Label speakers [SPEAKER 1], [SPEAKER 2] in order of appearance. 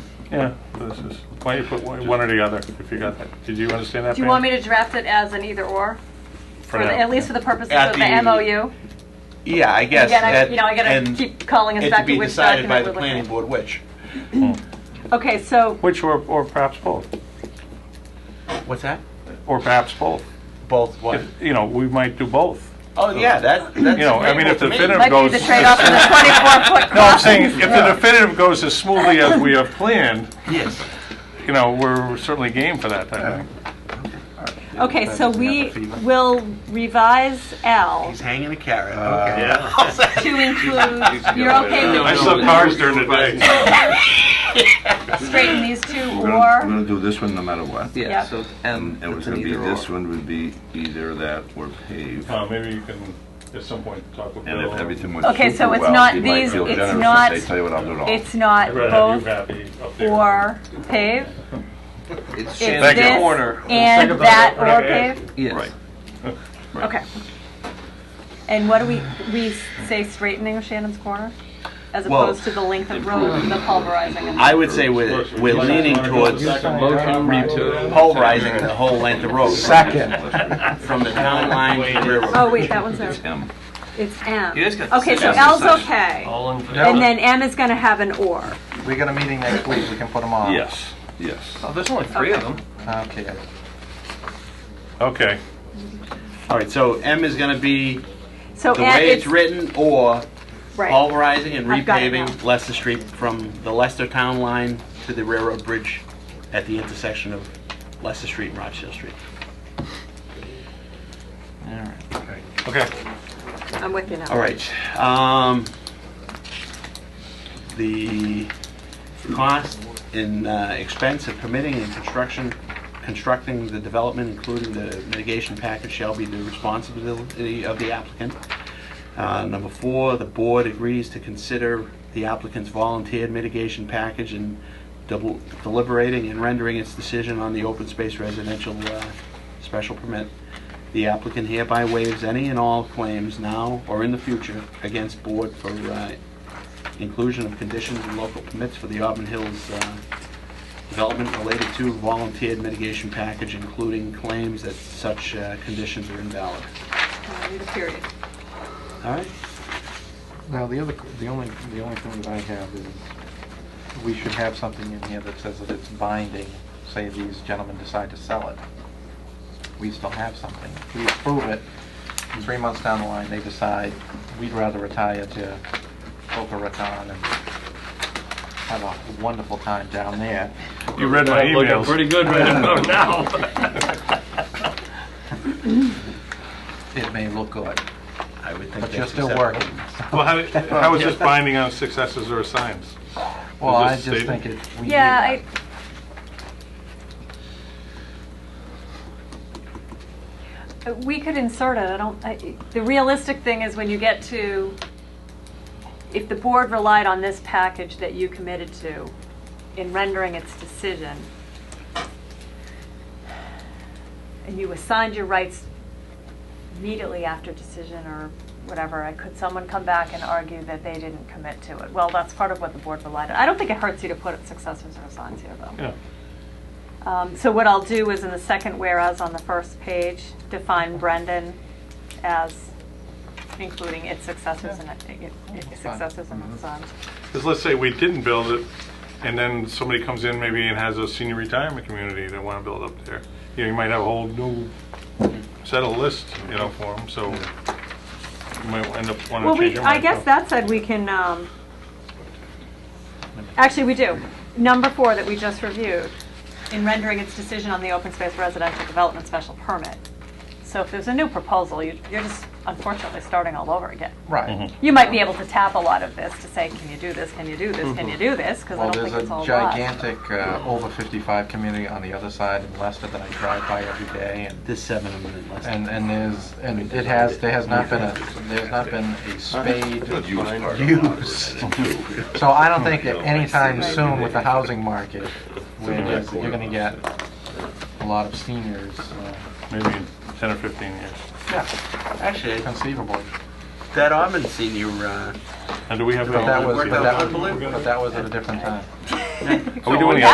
[SPEAKER 1] Yeah, this is, why don't you put one one or the other, if you got that, did you understand that?
[SPEAKER 2] Do you want me to draft it as an either-or? For the-
[SPEAKER 1] now.
[SPEAKER 2] At least for the purposes
[SPEAKER 3] At
[SPEAKER 2] of the
[SPEAKER 3] the-
[SPEAKER 2] MOU?
[SPEAKER 3] Yeah, I guess.
[SPEAKER 2] Again, I-
[SPEAKER 3] that-
[SPEAKER 2] you know, I gotta
[SPEAKER 3] and-
[SPEAKER 2] keep calling us
[SPEAKER 3] and
[SPEAKER 2] back to
[SPEAKER 3] be
[SPEAKER 2] which
[SPEAKER 3] decided by
[SPEAKER 2] document
[SPEAKER 3] the
[SPEAKER 2] we're
[SPEAKER 3] planning
[SPEAKER 2] looking
[SPEAKER 3] board, which?
[SPEAKER 2] at. Okay, so,
[SPEAKER 1] Which, or, or perhaps both,
[SPEAKER 3] What's that?
[SPEAKER 1] or perhaps both.
[SPEAKER 3] Both what?
[SPEAKER 1] If- You know, we might do both.
[SPEAKER 3] Oh, yeah, that, that's.
[SPEAKER 1] You know, I mean, if the
[SPEAKER 3] agreeable
[SPEAKER 1] definitive
[SPEAKER 3] to me.
[SPEAKER 2] might
[SPEAKER 1] goes.
[SPEAKER 2] be the trade-off of the 24-foot
[SPEAKER 1] No, I'm
[SPEAKER 2] crossing.
[SPEAKER 1] saying, if the definitive goes as smoothly as we have planned,
[SPEAKER 3] Yes.
[SPEAKER 1] you know, we're certainly game for that, I think.
[SPEAKER 2] Okay, so we
[SPEAKER 3] Have a fever.
[SPEAKER 2] will revise L
[SPEAKER 3] He's hanging a carrot,
[SPEAKER 4] Yeah.
[SPEAKER 3] okay.
[SPEAKER 2] to include, you're okay
[SPEAKER 1] I
[SPEAKER 2] with
[SPEAKER 1] saw cars during the day.
[SPEAKER 2] straightening these two
[SPEAKER 4] We're gonna- We're
[SPEAKER 2] or?
[SPEAKER 4] gonna do this one no matter what.
[SPEAKER 2] Yep.
[SPEAKER 5] Yeah, so M,
[SPEAKER 4] And it was
[SPEAKER 5] it's an
[SPEAKER 4] gonna be,
[SPEAKER 5] either
[SPEAKER 4] this
[SPEAKER 5] or.
[SPEAKER 4] one would be either that or pave.
[SPEAKER 1] Uh, Maybe you can, at some point, talk with Bill.
[SPEAKER 4] And if everything went
[SPEAKER 2] Okay, so
[SPEAKER 4] super
[SPEAKER 2] it's
[SPEAKER 4] well,
[SPEAKER 2] not
[SPEAKER 4] he might
[SPEAKER 2] these-
[SPEAKER 4] feel
[SPEAKER 2] it's
[SPEAKER 4] generous and
[SPEAKER 2] not-
[SPEAKER 4] say, Tell you what, I'll do it all.
[SPEAKER 2] It's not
[SPEAKER 1] I'd rather have you
[SPEAKER 2] both
[SPEAKER 1] happy up there.
[SPEAKER 2] or pave?
[SPEAKER 5] It's
[SPEAKER 2] It's
[SPEAKER 1] Thank you.
[SPEAKER 5] Shannon's
[SPEAKER 2] this
[SPEAKER 5] corner.
[SPEAKER 2] and
[SPEAKER 1] about
[SPEAKER 2] that
[SPEAKER 1] it.
[SPEAKER 2] or
[SPEAKER 1] Okay.
[SPEAKER 2] pave?
[SPEAKER 5] Yes.
[SPEAKER 2] Okay. And what do we, we say straightening of Shannon's Corner? As
[SPEAKER 3] Well,
[SPEAKER 2] opposed to the length of road, the pulverizing and
[SPEAKER 3] I would say we're, we're leaning towards pulverizing the whole length of road. Second. From the town line to the
[SPEAKER 2] Oh,
[SPEAKER 3] railroad.
[SPEAKER 2] wait, that one's there.
[SPEAKER 4] M.
[SPEAKER 2] It's M.
[SPEAKER 5] You guys got the
[SPEAKER 2] Okay, so
[SPEAKER 5] same
[SPEAKER 2] L's
[SPEAKER 5] exercise.
[SPEAKER 2] okay.
[SPEAKER 6] All in
[SPEAKER 2] And then M is gonna have an or.
[SPEAKER 7] We got a meeting next week, we can put them
[SPEAKER 2] Oh.
[SPEAKER 7] on.
[SPEAKER 4] Yes, yes.
[SPEAKER 5] Oh, there's only three of them.
[SPEAKER 7] Okay.
[SPEAKER 1] Okay,
[SPEAKER 3] All right, so M is gonna be
[SPEAKER 2] So
[SPEAKER 3] the
[SPEAKER 2] M-
[SPEAKER 3] way it's written or
[SPEAKER 2] Right,
[SPEAKER 3] pulverizing and
[SPEAKER 2] I've got it
[SPEAKER 3] repaving
[SPEAKER 2] now.
[SPEAKER 3] Leicester Street from the Leicester Town Line to the railroad bridge at the intersection of Leicester Street and Rochdale Street.
[SPEAKER 1] okay.
[SPEAKER 2] I'm with you now.
[SPEAKER 3] All right. um, The cost and uh, expense of permitting and construction, constructing the development, including the mitigation package, shall be the responsibility of the applicant. Uh, Number four, the board agrees to consider the applicant's volunteered mitigation package in double- deliberating and rendering its decision on the open space residential uh, special permit. The applicant hereby waives any and all claims now or in the future against board for uh, inclusion of conditions and local permits for the Auburn Hills uh, development related to volunteered mitigation package, including claims that such uh, conditions are invalid.
[SPEAKER 2] I need a period.
[SPEAKER 3] All right?
[SPEAKER 7] Now, the other, the only, the only thing that I have is, we should have something in here that says that it's binding, say these gentlemen decide to sell it. We still have something. We approve it, three months down the line, they decide, we'd rather retire to Boca Raton and have a wonderful time down there.
[SPEAKER 1] You read my
[SPEAKER 6] Looking
[SPEAKER 1] emails.
[SPEAKER 6] pretty good right about now.
[SPEAKER 7] It may look good,
[SPEAKER 3] I would think
[SPEAKER 7] but you're
[SPEAKER 3] that's
[SPEAKER 7] still
[SPEAKER 3] acceptable.
[SPEAKER 7] working.
[SPEAKER 1] Well, how, how is this binding on successes or assigns?
[SPEAKER 7] Well, I
[SPEAKER 1] Is this
[SPEAKER 7] just
[SPEAKER 1] stated?
[SPEAKER 7] think it, we need
[SPEAKER 2] Yeah,
[SPEAKER 7] that.
[SPEAKER 2] I, Uh, we could insert it, I don't, I, the realistic thing is when you get to, if the board relied on this package that you committed to in rendering its decision, and you assigned your rights immediately after decision or whatever, uh, could someone come back and argue that they didn't commit to it? Well, that's part of what the board relied on. I don't think it hurts you to put successors or assigns here, though.
[SPEAKER 1] Yeah.
[SPEAKER 2] Um, So what I'll do is in the second whereas on the first page, define Brendan as including its successors and, it- it- its successors and its sons.
[SPEAKER 1] Because let's say we didn't build it, and then somebody comes in maybe and has a senior retirement community they want to build up there. You know, you might have a whole new set of lists, you know, for them, so you might end up wanting
[SPEAKER 2] Well,
[SPEAKER 1] to change
[SPEAKER 2] we,
[SPEAKER 1] your
[SPEAKER 2] I
[SPEAKER 1] mind. Oh.
[SPEAKER 2] guess
[SPEAKER 1] so.
[SPEAKER 2] that said, we can, um, actually, we do. Number four that we just reviewed, in rendering its decision on the open space residential development special permit. So if there's a new proposal, you- you're just unfortunately starting all over again.
[SPEAKER 7] Right.
[SPEAKER 2] You might be able to tap a lot of this to say, can you do this, can you do this, can you do this? Because I
[SPEAKER 7] Mm-hmm. Well,
[SPEAKER 2] don't
[SPEAKER 7] there's
[SPEAKER 2] think
[SPEAKER 7] a
[SPEAKER 2] it's all lot.
[SPEAKER 7] gigantic uh, over 55 community on the other side in Leicester that I drive by every day, and,
[SPEAKER 3] There's seven of them in Leicester.
[SPEAKER 7] and and there's, and it has, there has not been a, there's not been a spade
[SPEAKER 4] But you was part of it.
[SPEAKER 7] used. So I don't think at any time soon with the housing market, where
[SPEAKER 1] Right.
[SPEAKER 7] there's- you're gonna get a lot of seniors, uh,
[SPEAKER 1] Maybe in 10 or 15 years.
[SPEAKER 3] Actually,
[SPEAKER 7] conceivably.
[SPEAKER 3] that Auburn senior, uh,
[SPEAKER 1] And do we have
[SPEAKER 7] But that was,
[SPEAKER 1] that?
[SPEAKER 7] but that was, but that was at a different time.
[SPEAKER 1] Are we doing
[SPEAKER 2] So-
[SPEAKER 1] any